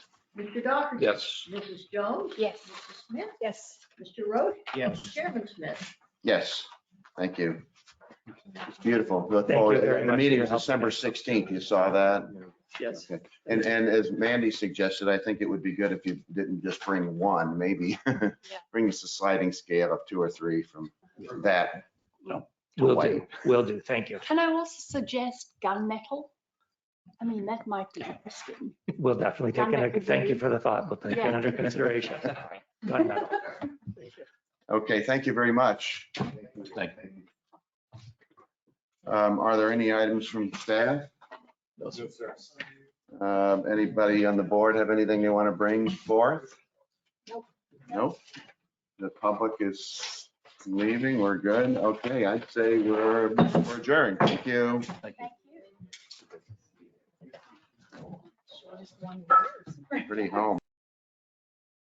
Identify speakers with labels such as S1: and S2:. S1: Mr. Doherty.
S2: Yes.
S1: Mrs. Jones.
S3: Yes.
S1: Mr. Smith.
S3: Yes.
S1: Mr. Roach.
S4: Yes.
S1: Chairman Smith.
S5: Yes, thank you. It's beautiful. Look
S4: Thank you
S5: forward-
S4: very
S5: The
S4: much
S5: meeting
S4: for
S5: is
S4: your help.
S5: December 16th. You saw that?
S4: Yes.
S5: Okay. And, and as Mandy suggested, I think it would be good if you didn't just bring one, maybe. Bring us a sliding scale of two or three from that.
S4: Will
S5: Hawaii.
S4: do, will do. Thank you.
S3: Can I also suggest gunmetal? I mean, that might be interesting.
S4: We'll definitely take
S3: Done that
S4: it.
S3: could
S4: Thank
S3: be-
S4: you for the thought. We'll take it
S3: Yeah.
S4: under consideration. Done now.
S5: Okay, thank you very much.
S2: Thank
S5: Um, Are there any items from staff? Um, Anybody on the board have anything they want to bring forth?
S3: Nope.
S5: Nope. The public is leaving. We're good. Okay, I'd say we're we're adjourned. Thank you.
S3: Thank you.
S5: Pretty home.